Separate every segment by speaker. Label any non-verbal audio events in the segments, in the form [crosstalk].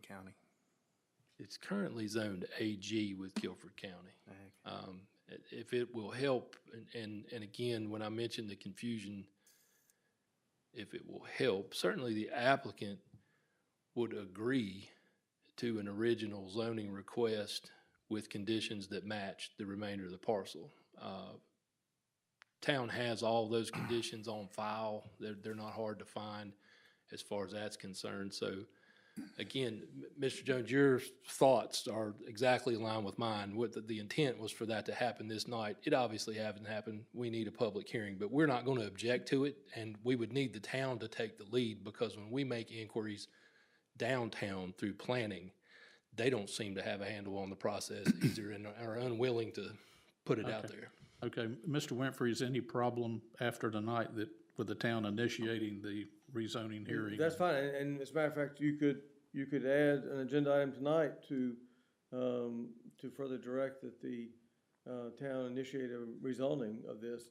Speaker 1: County?
Speaker 2: It's currently zoned AG with Guilford County. Um, i- If it will help, and- and, and again, when I mentioned the confusion, if it will help, certainly the applicant would agree to an original zoning request with conditions that match the remainder of the parcel. Uh, Town has all those conditions on file. They're, they're not hard to find as far as that's concerned. So again, M- Mr. Jones, your thoughts are exactly aligned with mine. What the, the intent was for that to happen this night. It obviously hasn't happened. We need a public hearing, but we're not going to object to it. And we would need the town to take the lead because when we make inquiries downtown through planning, they don't seem to have a handle on the process either and are unwilling to put it out there.
Speaker 3: Okay, Mr. Winfrey, is any problem after tonight that, with the town initiating the rezoning hearing?
Speaker 4: That's fine, and, and as a matter of fact, you could, you could add an agenda item tonight to, um, to further direct that the, uh, town initiate a rezoning of this.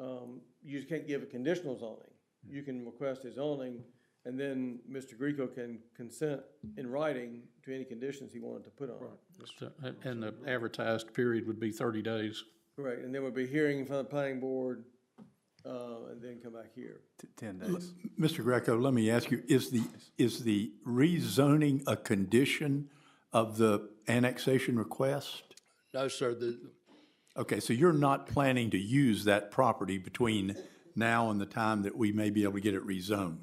Speaker 4: Um, you just can't give a conditional zoning. You can request a zoning, and then Mr. Greco can consent in writing to any conditions he wanted to put on it.
Speaker 3: So, and- uh, And the advertised period would be thirty days.
Speaker 4: Correct, and then we'll be hearing from the planning board, uh, and then come back here.
Speaker 1: T- Ten days.
Speaker 5: Mr. Greco, let me ask you, is the, is the rezoning a condition of the annexation request?
Speaker 2: No, sir, the,
Speaker 5: Okay, so you're not planning to use that property between now and the time that we may be able to get it rezoned?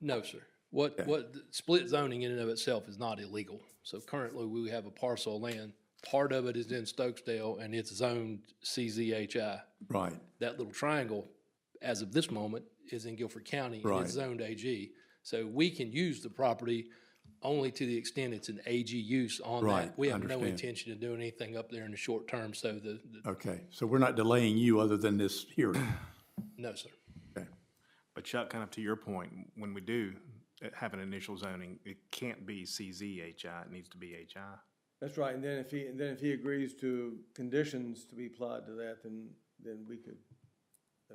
Speaker 2: No, sir. What, what, split zoning in and of itself is not illegal. So currently, we have a parcel of land. Part of it is in Stokesdale, and it's zoned CZHI.
Speaker 5: Right,
Speaker 2: That little triangle, as of this moment, is in Guilford County. and
Speaker 5: Right.
Speaker 2: It's zoned AG. So we can use the property only to the extent it's an AG use on that.
Speaker 5: Right,
Speaker 2: We have no
Speaker 5: understand.
Speaker 2: intention of doing anything up there in the short term, so the, the-
Speaker 5: okay, so we're not delaying you other than this
Speaker 6: [clears throat]
Speaker 5: hearing?
Speaker 2: no, sir.
Speaker 5: Okay.
Speaker 1: But Chuck, kind of to your point, when we do uh, have an initial zoning, it can't be CZHI, it needs to be HI.
Speaker 4: That's right, and then if he, and then if he agrees to conditions to be applied to that, then, then we could, uh,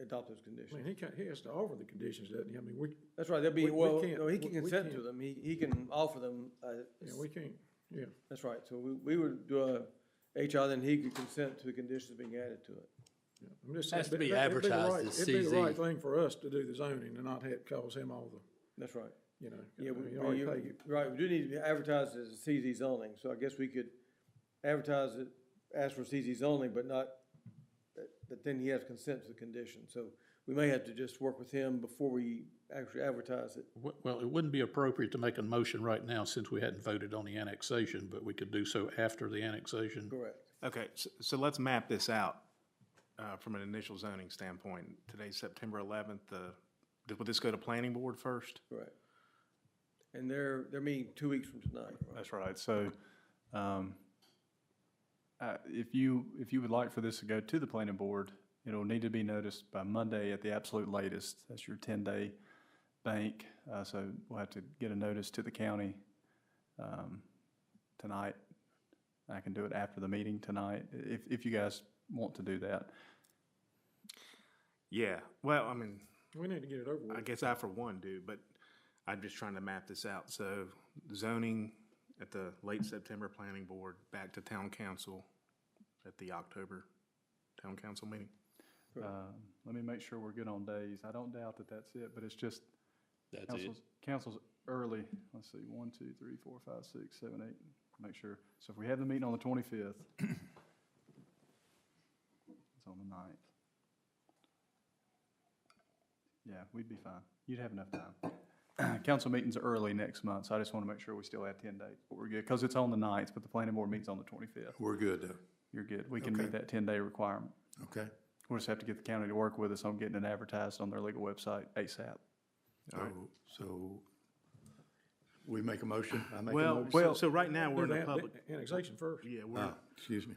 Speaker 4: adopt those
Speaker 7: I mean,
Speaker 4: conditions.
Speaker 7: he can, he has to offer the conditions, doesn't he? I mean, we,
Speaker 4: That's right, there'll be,
Speaker 7: We- we
Speaker 4: well,
Speaker 7: can't-
Speaker 4: no, he can
Speaker 7: we- we
Speaker 4: consent to
Speaker 7: can't.
Speaker 4: them, he, he can offer them, uh,
Speaker 7: yeah, we can't, yeah.
Speaker 4: that's right, so we, we would do a HR, then he could consent to the conditions being added to it.
Speaker 7: I'm just
Speaker 2: Has
Speaker 7: saying,
Speaker 2: to be
Speaker 7: that- that'd the
Speaker 2: advertised
Speaker 7: right-
Speaker 2: as
Speaker 7: It'd be the right
Speaker 2: CZ.
Speaker 7: thing for us to do the zoning and not have, cause him all the,
Speaker 4: That's right.
Speaker 7: you know, I
Speaker 4: Yeah, we,
Speaker 7: mean, he
Speaker 4: we-
Speaker 7: already
Speaker 4: you-
Speaker 7: paid you.
Speaker 4: right, we do need to advertise it as a CZ zoning, so I guess we could advertise it, ask for CZ zoning, but not, that- that then he has consent to the condition, so we may have to just work with him before we actually advertise it.
Speaker 3: W- Well, it wouldn't be appropriate to make a motion right now since we hadn't voted on the annexation, but we could do so after the annexation.
Speaker 4: Correct.
Speaker 1: Okay, so, so let's map this out, uh, from an initial zoning standpoint. Today's September eleventh, uh, th- would this go to planning board first?
Speaker 4: Correct. And they're, they're meeting two weeks from tonight, right?
Speaker 6: That's right. So, um, uh, if you, if you would like for this to go to the planning board, it'll need to be noticed by Monday at the absolute latest. That's your ten-day bank. Uh, so we'll have to get a notice to the county, um, tonight. I can do it after the meeting tonight, i- if, if you guys want to do that.
Speaker 1: Yeah, well, I mean,
Speaker 7: We need to get it over with.
Speaker 1: I guess I for one do, but I'm just trying to map this out. So zoning at the late September planning board, back to town council at the October town council meeting.
Speaker 6: Um, let me make sure we're good on days. I don't doubt that that's it, but it's just
Speaker 2: That's it.
Speaker 6: Council's, council's early, let's see, one, two, three, four, five, six, seven, eight, make sure. So if we have the meeting on the twenty-fifth, [coughs] it's on the ninth. Yeah, we'd be fine. You'd have enough time. [coughs] Council meeting's early next month, so I just want to make sure we still have ten days, but we're good, because it's on the ninth, but the planning board meets on the twenty-fifth.
Speaker 5: We're good, though.
Speaker 6: You're good. We can
Speaker 5: Okay.
Speaker 6: meet that ten-day requirement.
Speaker 5: okay?
Speaker 6: We'll just have to get the county to work with us on getting it advertised on their legal website ASAP.
Speaker 5: So- So, we make a motion? I make a
Speaker 1: Well,
Speaker 5: motion?
Speaker 1: well, so right now, we're
Speaker 7: Do
Speaker 1: in a
Speaker 7: the
Speaker 1: public,
Speaker 7: Annexation first.
Speaker 1: yeah, we're,
Speaker 5: Ah, Excuse me.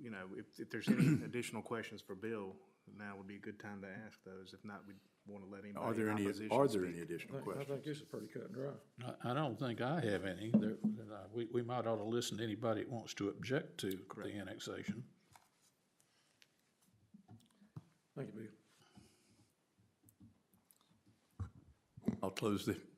Speaker 1: you know, if, if there's
Speaker 5: [clears throat]
Speaker 1: any additional questions for Bill, now would be a good time to ask those. If not, we'd want to let anybody.
Speaker 5: Are there
Speaker 1: in
Speaker 5: any,
Speaker 1: opposition
Speaker 5: are there
Speaker 1: speak.
Speaker 5: any additional
Speaker 7: I
Speaker 5: questions?
Speaker 7: think this is pretty cut and dry.
Speaker 3: I, I don't think I have any. There, uh, we, we might ought to listen to anybody that wants to object to the annexation.
Speaker 7: Thank you, Bill.
Speaker 5: I'll close the